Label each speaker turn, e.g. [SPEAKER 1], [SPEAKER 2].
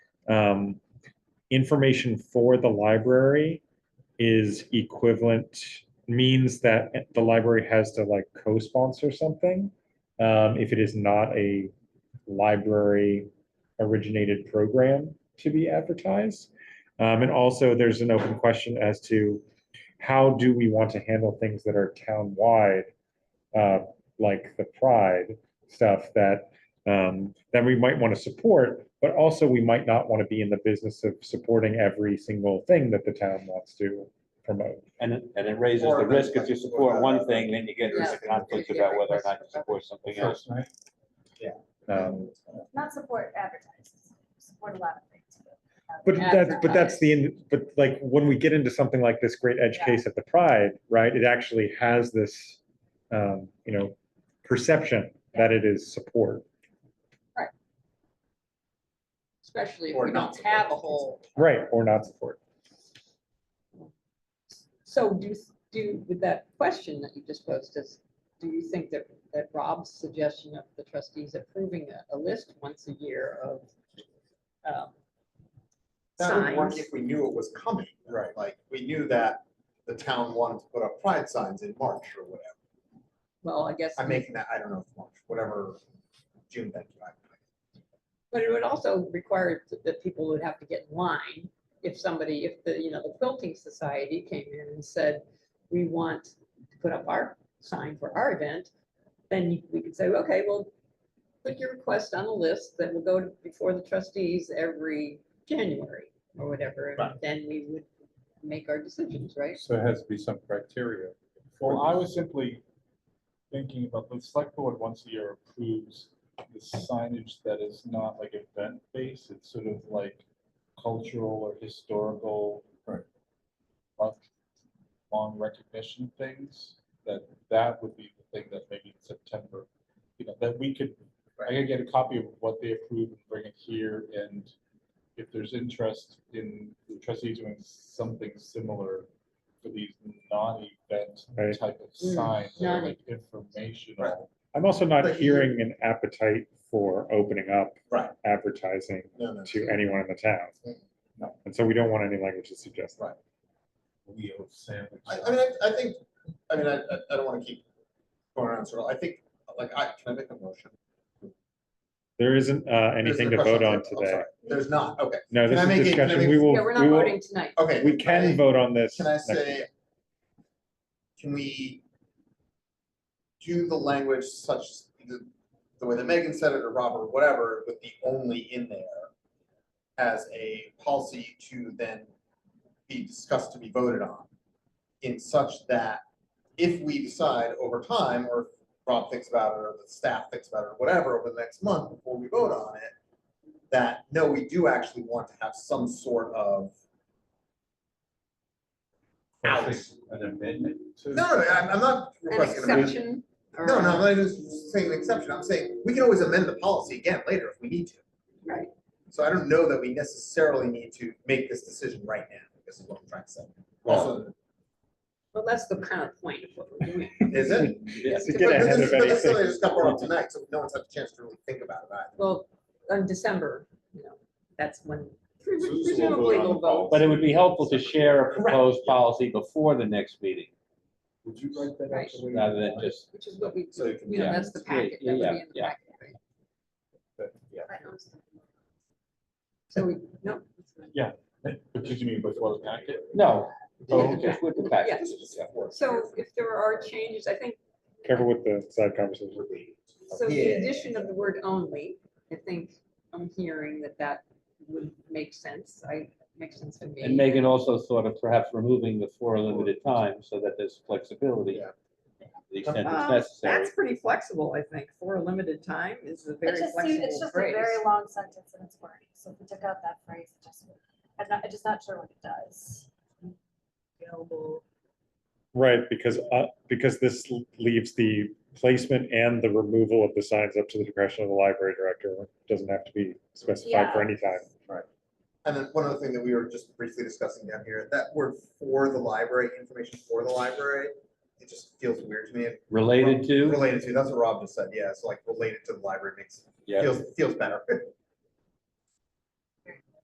[SPEAKER 1] um, information for the library is equivalent, means that the library has to like co-sponsor something. Um, if it is not a library originated program to be advertised. Um, and also there's an open question as to how do we want to handle things that are town-wide, uh, like the pride stuff that, um, that we might want to support, but also we might not want to be in the business of supporting every single thing that the town wants to promote.
[SPEAKER 2] And it, and it raises
[SPEAKER 3] Or
[SPEAKER 2] the
[SPEAKER 3] if
[SPEAKER 2] risk
[SPEAKER 3] it's-
[SPEAKER 2] if you support one thing, then you get into
[SPEAKER 3] Yeah.
[SPEAKER 2] conflict about whether or not you support something else.
[SPEAKER 1] Um,
[SPEAKER 4] Not support advertising, support a lot of things. um,
[SPEAKER 1] But that's, but that's the, in- but like, when we get into something like this great edge
[SPEAKER 4] Yeah.
[SPEAKER 1] case at the Pride, right, it actually has this, um, you know, perception that it is support.
[SPEAKER 5] especially if
[SPEAKER 3] Or
[SPEAKER 5] we
[SPEAKER 3] not
[SPEAKER 5] don't have a whole.
[SPEAKER 1] Right, or not support.
[SPEAKER 5] So do, you- do, you- with that question that you just posed, does, do you think that, that Rob's suggestion of the trustees approving a, a list once a year of um,
[SPEAKER 3] That would work
[SPEAKER 5] signs?
[SPEAKER 3] if we knew it was coming.
[SPEAKER 6] Right.
[SPEAKER 3] Like, we knew that the town wanted to put up pride signs in March or whatever.
[SPEAKER 5] Well, I guess,
[SPEAKER 3] I'm making that, I don't know, if March, whatever, June, thank you. I-
[SPEAKER 5] but it would also require th- that people would have to get in line if somebody, if the, you know, the quilting society came in and said, we want to put up our sign for our event, then you- we could say, okay, well, put your request on a list that will go to- before the trustees every January or whatever, and
[SPEAKER 3] Right.
[SPEAKER 5] then we would make our decisions, right?
[SPEAKER 6] So it has to be some criteria.
[SPEAKER 7] Well, I was simply thinking about the select board once a year approves the signage that is not like event based, it's sort of like cultural or historical.
[SPEAKER 6] Right.
[SPEAKER 7] uh, Long recognition things, that that would be the thing that maybe in September, you know, that we could, I could get a copy of what they approve and bring it here and. If there's interest in the trustees doing something similar for these non-event
[SPEAKER 1] Right.
[SPEAKER 7] type of
[SPEAKER 5] Mm,
[SPEAKER 7] signs, that are
[SPEAKER 5] non-
[SPEAKER 7] like informational.
[SPEAKER 1] I'm also not
[SPEAKER 3] But you-
[SPEAKER 1] hearing an appetite for opening up
[SPEAKER 3] Right.
[SPEAKER 1] advertising
[SPEAKER 3] No, no.
[SPEAKER 1] to anyone in the town.
[SPEAKER 7] No.
[SPEAKER 1] And so we don't want any language to suggest that.
[SPEAKER 6] Wheel sandwich.
[SPEAKER 3] I, I mean, I, I think, I mean, I, I- I don't want to keep going around, so I think, like, I, can I make a motion?
[SPEAKER 1] There isn't, uh,
[SPEAKER 3] There's
[SPEAKER 1] anything
[SPEAKER 3] the
[SPEAKER 1] to vote
[SPEAKER 3] question.
[SPEAKER 1] on
[SPEAKER 3] I'm sorry.
[SPEAKER 1] today.
[SPEAKER 3] There's not, okay,
[SPEAKER 1] No,
[SPEAKER 3] Can
[SPEAKER 1] this
[SPEAKER 3] I make
[SPEAKER 1] is
[SPEAKER 3] it- can I
[SPEAKER 1] discussion.
[SPEAKER 3] make-
[SPEAKER 1] We will,
[SPEAKER 5] Yeah, we're
[SPEAKER 1] we
[SPEAKER 5] not
[SPEAKER 1] will-
[SPEAKER 5] voting tonight.
[SPEAKER 3] okay.
[SPEAKER 1] we can vote on this.
[SPEAKER 3] Can I
[SPEAKER 1] next week.
[SPEAKER 3] say? Can we? Do the language such, the, the way that Megan said it or Robert, whatever, with the only in there. As a policy to then be discussed to be voted on. In such that if we decide over time, or if Rob thinks about it, or the staff thinks about it, or whatever, over the next month before we vote on it. That, no, we do actually want to have some sort of
[SPEAKER 6] I think An amendment to.
[SPEAKER 3] No, no, I'm, I'm not
[SPEAKER 5] An
[SPEAKER 3] requesting. an amendment.
[SPEAKER 5] exception or?
[SPEAKER 3] No, no, I'm not even saying an exception. I'm saying we can always amend the policy again later if we need to.
[SPEAKER 5] Right.
[SPEAKER 3] So I don't know that we necessarily need to make this decision right now. This is what I'm trying to say. Also,
[SPEAKER 5] Well, that's the kind of point of what we're doing.
[SPEAKER 3] is it?
[SPEAKER 1] Yes, to
[SPEAKER 3] But
[SPEAKER 1] get
[SPEAKER 3] but
[SPEAKER 1] ahead
[SPEAKER 3] this-
[SPEAKER 1] of
[SPEAKER 3] but this
[SPEAKER 1] anything.
[SPEAKER 3] really just got brought up tonight, so no one's had a chance to really think about it either.
[SPEAKER 5] Well, in December, you know, that's when
[SPEAKER 7] So it's a little
[SPEAKER 5] presumably
[SPEAKER 7] bit on
[SPEAKER 5] we'll
[SPEAKER 7] the
[SPEAKER 5] vote.
[SPEAKER 2] But it would be helpful to share a
[SPEAKER 3] Correct.
[SPEAKER 2] proposed policy before the next meeting,
[SPEAKER 7] Would you write that
[SPEAKER 5] Right.
[SPEAKER 7] out? the way you
[SPEAKER 2] rather than
[SPEAKER 7] want it?
[SPEAKER 2] just,
[SPEAKER 5] Which is what we,
[SPEAKER 3] So you
[SPEAKER 5] you
[SPEAKER 3] can-
[SPEAKER 5] know,
[SPEAKER 2] Yeah.
[SPEAKER 5] that's the
[SPEAKER 2] Yeah,
[SPEAKER 5] packet, that would be
[SPEAKER 2] yeah,
[SPEAKER 5] in the
[SPEAKER 2] yeah.
[SPEAKER 5] packet, right?
[SPEAKER 7] But, yeah.
[SPEAKER 5] So we, no.
[SPEAKER 7] But did you mean before the packet?
[SPEAKER 2] no,
[SPEAKER 7] Oh, okay.
[SPEAKER 2] just with the package.
[SPEAKER 3] This is just that word.
[SPEAKER 5] So if there are changes, I think,
[SPEAKER 1] Careful with the side conversation.
[SPEAKER 5] so the
[SPEAKER 3] Yeah.
[SPEAKER 5] addition of the word only, I think I'm hearing that that would make sense. I, makes sense to me.
[SPEAKER 2] And Megan also thought of perhaps removing the four limited times so that there's flexibility.
[SPEAKER 3] Yeah.
[SPEAKER 2] to The extent it's
[SPEAKER 3] Uh,
[SPEAKER 5] Um,
[SPEAKER 2] necessary.
[SPEAKER 5] That's pretty flexible, I think, for a limited time is a
[SPEAKER 4] It
[SPEAKER 5] very
[SPEAKER 4] just seems, it's
[SPEAKER 5] flexible
[SPEAKER 4] just a
[SPEAKER 5] phrase.
[SPEAKER 4] very long sentence and it's wordy, so if we took out that phrase, it just, would- I'm not, I'm just not sure what it does.
[SPEAKER 5] Available.
[SPEAKER 1] Right, because, uh, because this l- leaves the placement and the removal of the signs up to the discretion of the library director. It Doesn't have to be specified for
[SPEAKER 4] Yeah.
[SPEAKER 1] any time.
[SPEAKER 3] And then one other thing that we were just briefly discussing down here, that word for the library, information for the library, it just feels weird to me.
[SPEAKER 2] Related to,
[SPEAKER 3] Related to, that's what Rob just said, yeah, so like related to the library makes,
[SPEAKER 2] yeah,
[SPEAKER 3] feels, feels better.